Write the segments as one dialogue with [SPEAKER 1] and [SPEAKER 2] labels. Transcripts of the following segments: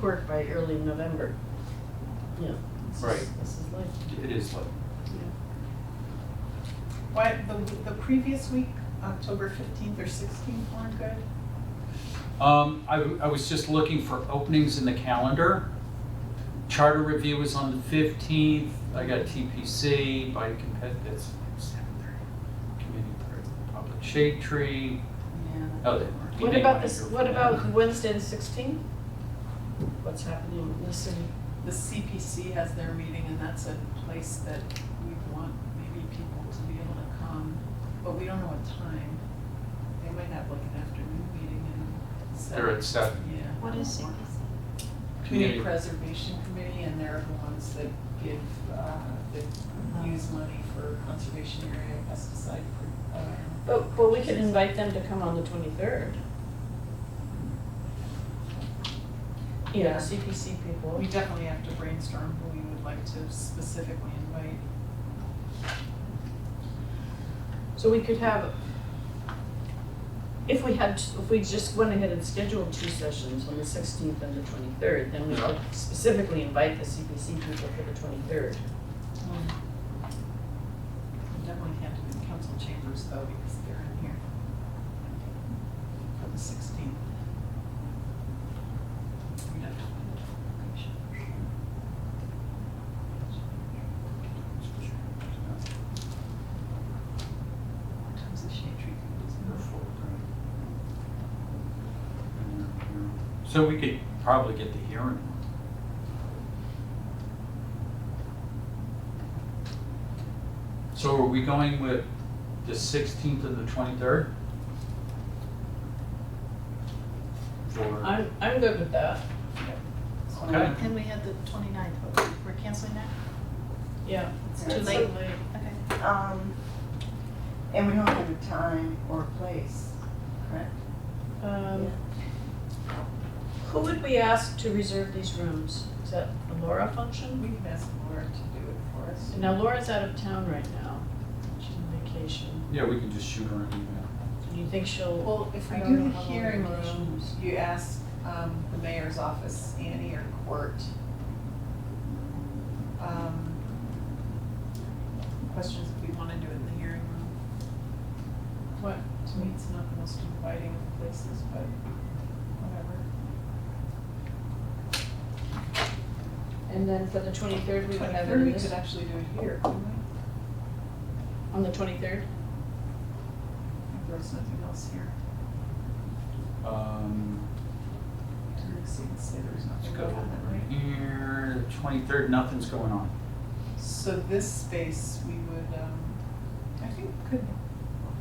[SPEAKER 1] court by early November. Yeah. this is-
[SPEAKER 2] Right.
[SPEAKER 1] This is life.
[SPEAKER 2] It is like,
[SPEAKER 3] Why, the, the previous week, October fifteenth or sixteenth weren't good?
[SPEAKER 2] um, I, w- I was just looking for openings in the calendar. Charter review is on the fifteenth, I got TPC by compet, that's seven thirty. Community Park, Public Shade Tree,
[SPEAKER 1] Yeah.
[SPEAKER 2] oh, they weren't.
[SPEAKER 1] What
[SPEAKER 2] They
[SPEAKER 1] about
[SPEAKER 2] might
[SPEAKER 1] this,
[SPEAKER 2] go for
[SPEAKER 1] what
[SPEAKER 2] that.
[SPEAKER 1] about Wednesday the sixteenth? What's happening in the city?
[SPEAKER 3] The CPC has their meeting and that's a place that we want maybe people to be able to come, but we don't know what time. They might have like an afternoon meeting and. set-
[SPEAKER 2] They're at seven.
[SPEAKER 3] Yeah.
[SPEAKER 4] What is CPC?
[SPEAKER 3] Community Preservation Committee and they're the ones that give, uh, that use money for conservation area pesticide. pro- uh,
[SPEAKER 1] But, but we could invite them to come on the twenty-third. You know,
[SPEAKER 3] Yeah.
[SPEAKER 1] CPC people.
[SPEAKER 3] We definitely have to brainstorm who we would like to specifically invite.
[SPEAKER 1] So we could have, if we had, if we just went ahead and scheduled two sessions on the sixteenth and the twenty-third, then we could
[SPEAKER 2] Yeah.
[SPEAKER 1] specifically invite the CPC people for the twenty-third.
[SPEAKER 3] We Definitely have to be in council chambers though, because they're in here. For the sixteenth. What time's the shade tree?
[SPEAKER 2] So we could probably get the hearing. So are we going with the sixteenth and the twenty-third? For,
[SPEAKER 1] I'm, I'm good with that,
[SPEAKER 2] okay,
[SPEAKER 4] And we had the 29th, but we're canceling that?
[SPEAKER 1] yeah.
[SPEAKER 5] It's
[SPEAKER 4] Too late. Okay.
[SPEAKER 5] Um, and we don't have a time or a place, correct?
[SPEAKER 1] Um, Who would we ask to reserve these rooms? Is that a Laura function?
[SPEAKER 3] We can ask Laura to do it for us.
[SPEAKER 1] Now Laura's out of town right now, she's on vacation.
[SPEAKER 2] yeah, we can just shoot her an email.
[SPEAKER 1] Do you think she'll,
[SPEAKER 3] Well, if
[SPEAKER 1] I
[SPEAKER 3] we
[SPEAKER 1] don't
[SPEAKER 3] do
[SPEAKER 1] know
[SPEAKER 3] the
[SPEAKER 1] how long
[SPEAKER 3] hearing
[SPEAKER 1] the
[SPEAKER 3] rooms,
[SPEAKER 1] rooms-
[SPEAKER 3] you ask, um, the mayor's office, Annie or Court. um, Questions if we wanna do it in the hearing room. What, to me, it's not the most inviting of places, but whatever.
[SPEAKER 1] and then for the twenty-third, we would have it
[SPEAKER 3] Twenty-third,
[SPEAKER 1] in
[SPEAKER 3] we
[SPEAKER 1] this-
[SPEAKER 3] could actually do it here, couldn't we?
[SPEAKER 1] on the twenty-third?
[SPEAKER 3] If there's nothing else here.
[SPEAKER 2] Um,
[SPEAKER 3] Didn't seem to say there was
[SPEAKER 2] let's
[SPEAKER 3] nothing
[SPEAKER 2] go
[SPEAKER 3] going on that
[SPEAKER 2] over
[SPEAKER 3] night.
[SPEAKER 2] here, twenty-third, nothing's going on.
[SPEAKER 3] So this space, we would, um, I think could,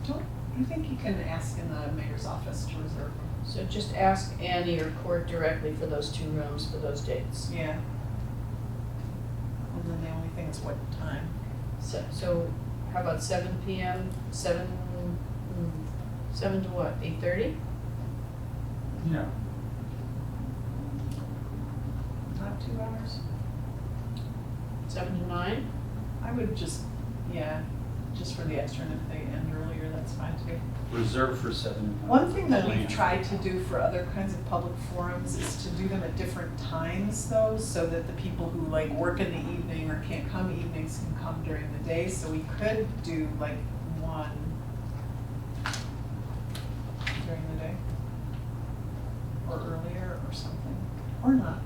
[SPEAKER 3] don't, I think you can ask in the mayor's office to reserve.
[SPEAKER 1] So just ask Annie or Court directly for those two rooms for those dates.
[SPEAKER 3] Yeah. And then the only thing is what time?
[SPEAKER 1] So, so how about seven PM, seven, mm, seven to what, eight thirty?
[SPEAKER 2] Yeah.
[SPEAKER 3] Not two hours?
[SPEAKER 1] Seven to nine?
[SPEAKER 3] I would just, yeah, just for the extra, and if they end earlier, that's fine too.
[SPEAKER 2] Reserved for seven.
[SPEAKER 3] One thing that we've
[SPEAKER 2] Yeah.
[SPEAKER 3] tried to do for other kinds of public forums is to do them at different times though, so that the people who like work in the evening or can't come evenings can come during the day, so we could do like one during the day. Or earlier or something, or not.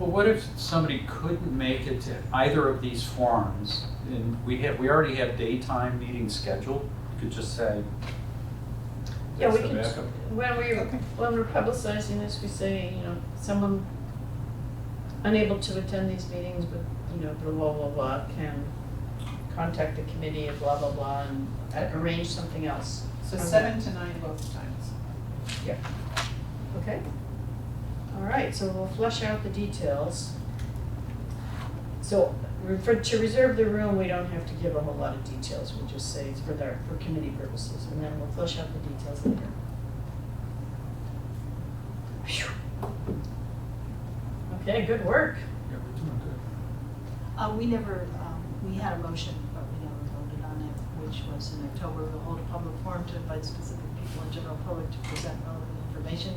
[SPEAKER 2] Well, what if somebody couldn't make it to either of these forums? And we have, we already have daytime meetings scheduled, you could just say.
[SPEAKER 1] Yeah, we
[SPEAKER 2] That's the
[SPEAKER 1] can,
[SPEAKER 2] backup.
[SPEAKER 1] when we,
[SPEAKER 3] Okay.
[SPEAKER 1] when we're publicizing this, we say, you know, someone unable to attend these meetings with, you know, blah, blah, blah, blah, can contact the committee of blah, blah, blah, and uh, arrange something else.
[SPEAKER 3] So
[SPEAKER 1] Okay.
[SPEAKER 3] seven to nine both times.
[SPEAKER 1] Okay. All right, so we'll flesh out the details. So re- for, to reserve the room, we don't have to give a whole lot of details, we'll just say it's for their, for committee purposes, and then we'll flesh out the details later. Phew. Okay, good work.
[SPEAKER 2] Yeah, we're doing good.
[SPEAKER 4] Uh, we never, um, we had a motion, but we never voted on it, which was in October, we'll hold a public forum to invite specific people and general public to present relevant information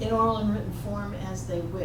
[SPEAKER 4] in oral and written form as they wish.